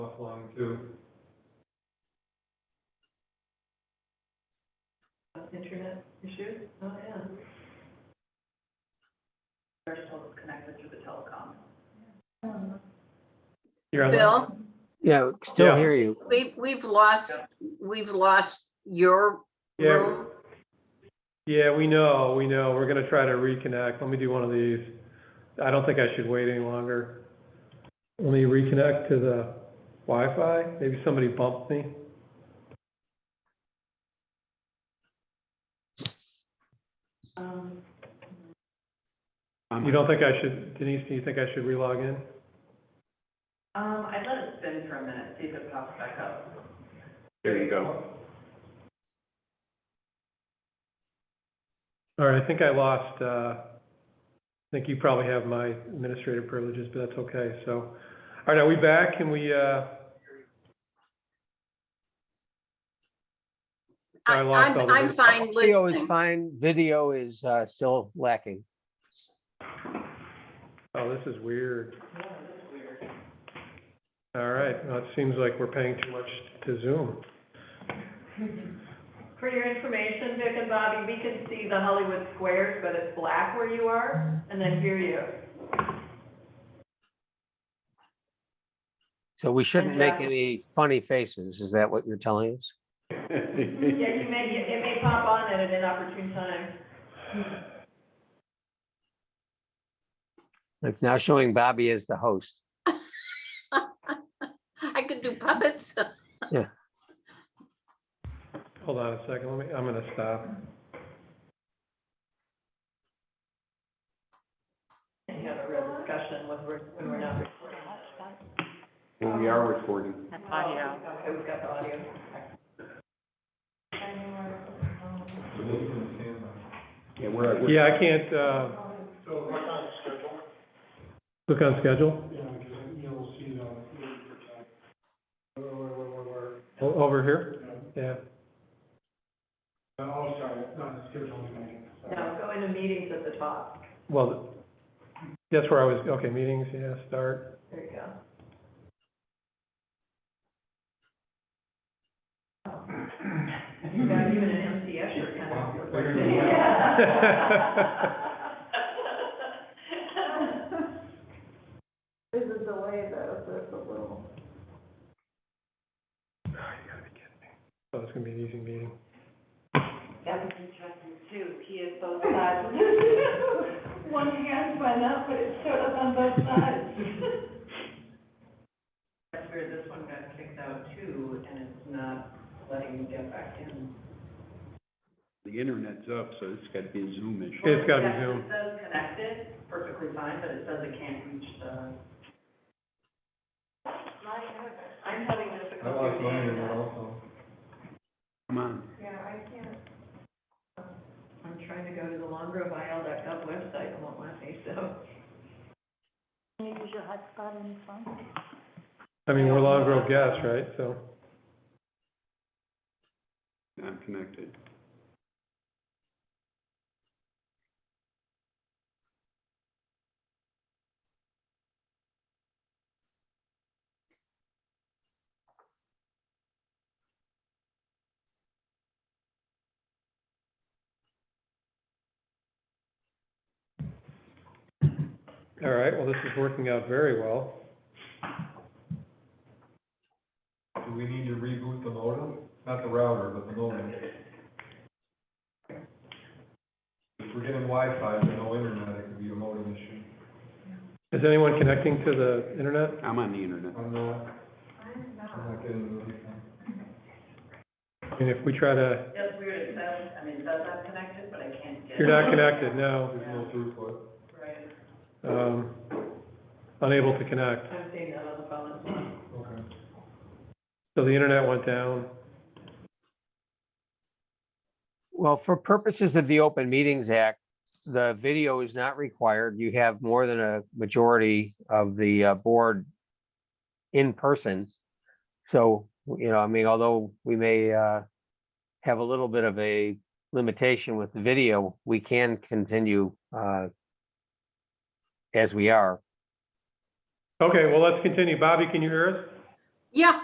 flowing too. Internet issues? Oh, yeah. They're still connected to the telecom. Here, I'll- Bill, Yeah, we can still Yeah. hear you. we, we've lost, we've lost your Yeah, room. yeah, we know, we know. We're gonna try to reconnect. Let me do one of these. I don't think I should wait any longer. Let me reconnect to the Wi-Fi. Maybe somebody bumped me. Um, You don't think I should, Denise, do you think I should relog in? um, I let it spin for a minute, see if it pops back up. There you go. All right, I think I lost, uh, I think you probably have my administrative privileges, but that's okay, so. All right, are we back? Can we, uh, I- I lost all I'm, the I'm video. fine Audio is listening. fine, video is uh, still lacking. oh, this is weird. All right, well, it seems like we're paying too much to Zoom. For your information, Vic and Bobby, we can see the Hollywood squares, but it's black where you are, and then hear you. So we shouldn't make Yeah. any funny faces. Is that what you're telling us? Yeah, you may, it may pop on at an inopportune time. It's now showing Bobby as the host. I could do puppets. Hold on a second, let me, I'm gonna stop. And you have a real discussion when we're, when we're not recording. Well, we are recording. Audio. Okay, we've got the audio. Yeah, we're, we're- Yeah, I can't, uh. Look on schedule? Yeah, because you'll see it on the meeting for time. Where, where, where, where, where, O- Over here? Yeah. oh, sorry, not the schedule meeting. No, go into meetings at the top. Well, that's where I was, okay, meetings, yeah, start. There you go. You got even an MC Escher kind of report. This is the way though, so it's a little. Oh, you gotta be kidding me. Oh, it's gonna be an easy meeting. That was interesting too, he is both sides. One hand went up, but it showed up on both sides. That's weird, this one got kicked out too, and it's not letting me get back in. the internet's up, so it's gotta be a Zoom issue. It's gotta be Yeah, Zoom. It says connected, perfectly fine, but it says it can't reach the. I'm having difficulty. also. Come on. Yeah, I can't. I'm trying to go to the longroveil.gov website, it won't let me, so. I mean, we're Long Grove guests, right? So, I'm connected. all right, well, this is working out very well. Do we need to reboot the modem? Not the router, but the modem. If we're getting Wi-Fi, but no internet, it could be a modem issue. Is anyone connecting to the internet? I'm on the internet. I'm not, I'm not getting anything. I mean, if we try to, That's weird, it says, I mean, it says I'm connected, but I can't get. you're not connected, no, There's no throughput. Right, um, unable to connect. I'm seeing that on the phone as well. Okay. So the internet went down. Well, for purposes of the Open Meetings Act, the video is not required. You have more than a majority of the uh, board in person. So, you know, I mean, although we may uh, have a little bit of a limitation with the video, we can continue uh, as we are. Okay, well, let's continue. Bobby, can you hear us? Yeah.